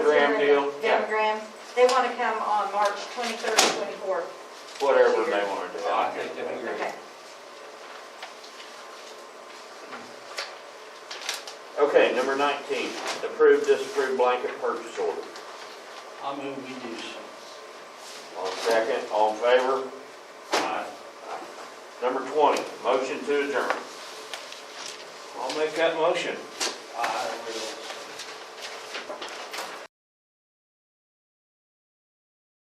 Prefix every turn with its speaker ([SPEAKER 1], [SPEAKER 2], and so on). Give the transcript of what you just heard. [SPEAKER 1] They want to come on March 23rd, 24th.
[SPEAKER 2] whatever they want to do.
[SPEAKER 3] I
[SPEAKER 2] I
[SPEAKER 3] think
[SPEAKER 2] can-
[SPEAKER 3] that'd be great.
[SPEAKER 1] Okay.
[SPEAKER 2] Okay, number 19, approve, disapprove blanket purchase order.
[SPEAKER 3] I move we do so.
[SPEAKER 2] All second, all in favor?
[SPEAKER 3] Aye.
[SPEAKER 2] Number 20, motion to adjourn. I'll make that motion.
[SPEAKER 3] I will.